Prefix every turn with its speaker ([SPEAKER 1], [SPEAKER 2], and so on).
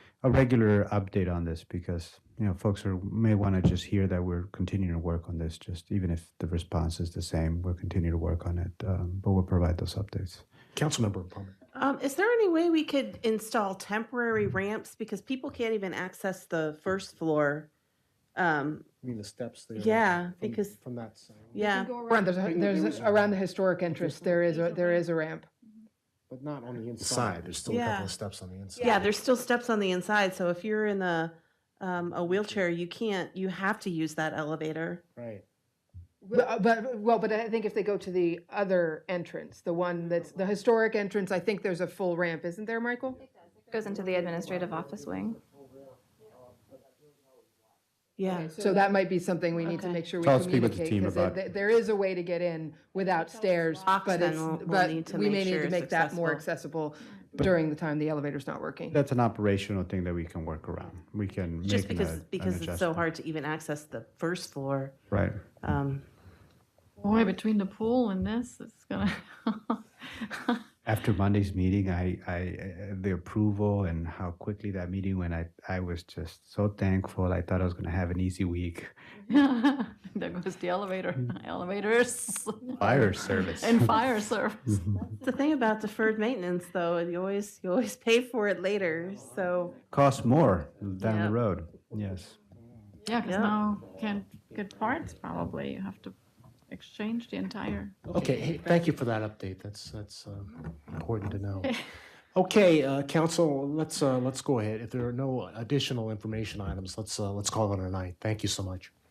[SPEAKER 1] a regular update on this because, you know, folks are, may want to just hear that we're continuing to work on this, just even if the response is the same, we'll continue to work on it, um, but we'll provide those updates.
[SPEAKER 2] Councilmember Palmer.
[SPEAKER 3] Um, is there any way we could install temporary ramps because people can't even access the first floor? Um,
[SPEAKER 2] I mean, the steps there.
[SPEAKER 3] Yeah,
[SPEAKER 2] from-
[SPEAKER 3] because-
[SPEAKER 2] From that side.
[SPEAKER 3] yeah,
[SPEAKER 4] Around, there's, a-
[SPEAKER 2] Bring the
[SPEAKER 4] there's,
[SPEAKER 2] doors
[SPEAKER 4] a-
[SPEAKER 2] down.
[SPEAKER 4] around the historic entrance, there is, a there is a ramp.
[SPEAKER 2] But not on the inside. There's still a
[SPEAKER 3] Yeah.
[SPEAKER 2] couple of steps on the inside.
[SPEAKER 3] yeah. There's still steps on the inside, so if you're in the um, a wheelchair, you can't. You have to use that elevator.
[SPEAKER 2] Right.
[SPEAKER 4] But, uh, but, well, but I think if they go to the other entrance, the one that's, the historic entrance, I think there's a full ramp, isn't there, Michael?
[SPEAKER 5] Goes into the administrative office wing.
[SPEAKER 3] Yeah.
[SPEAKER 4] So that might be something we need to
[SPEAKER 3] Okay.
[SPEAKER 4] make sure we
[SPEAKER 1] So I'll speak with the
[SPEAKER 4] communicate,
[SPEAKER 1] team
[SPEAKER 4] because
[SPEAKER 1] about-
[SPEAKER 4] there, there is a way to get in without stairs,
[SPEAKER 3] locks,
[SPEAKER 4] but
[SPEAKER 3] then
[SPEAKER 4] it's,
[SPEAKER 3] we'll- we'll
[SPEAKER 4] but
[SPEAKER 3] need to
[SPEAKER 4] we
[SPEAKER 3] make
[SPEAKER 4] may
[SPEAKER 3] sure
[SPEAKER 4] need to
[SPEAKER 3] it's
[SPEAKER 4] make that more accessible during the time the elevator's not working.
[SPEAKER 1] That's an operational thing that we can work around. We can
[SPEAKER 3] Just
[SPEAKER 1] make an
[SPEAKER 3] because
[SPEAKER 1] ad- an
[SPEAKER 3] because it's so
[SPEAKER 1] adjustment.
[SPEAKER 3] hard to even access the first floor.
[SPEAKER 1] Right.
[SPEAKER 3] Um,
[SPEAKER 6] Boy, between the pool and this, it's gonna.
[SPEAKER 1] After Monday's meeting, I, I, uh, the approval and how quickly that meeting went, I, I was just so thankful. I thought I was going to have an easy week.
[SPEAKER 6] there goes the elevator, elevators,
[SPEAKER 1] Fire service.
[SPEAKER 6] and fire service.
[SPEAKER 3] the thing about deferred maintenance, though, you always you always pay for it later. So
[SPEAKER 1] Costs more down
[SPEAKER 3] Yeah.
[SPEAKER 1] the road. Yes.
[SPEAKER 6] Yeah, because
[SPEAKER 3] Yeah.
[SPEAKER 6] now can't get parts. Probably you have to exchange the entire.
[SPEAKER 2] Okay, hey, thank you for that update. That's, that's uh,
[SPEAKER 3] Mm-hmm.
[SPEAKER 2] important to know. Okay, uh, council, let's, uh, let's go ahead. If there are no additional information items, let's, uh, let's call it a night. Thank you so much.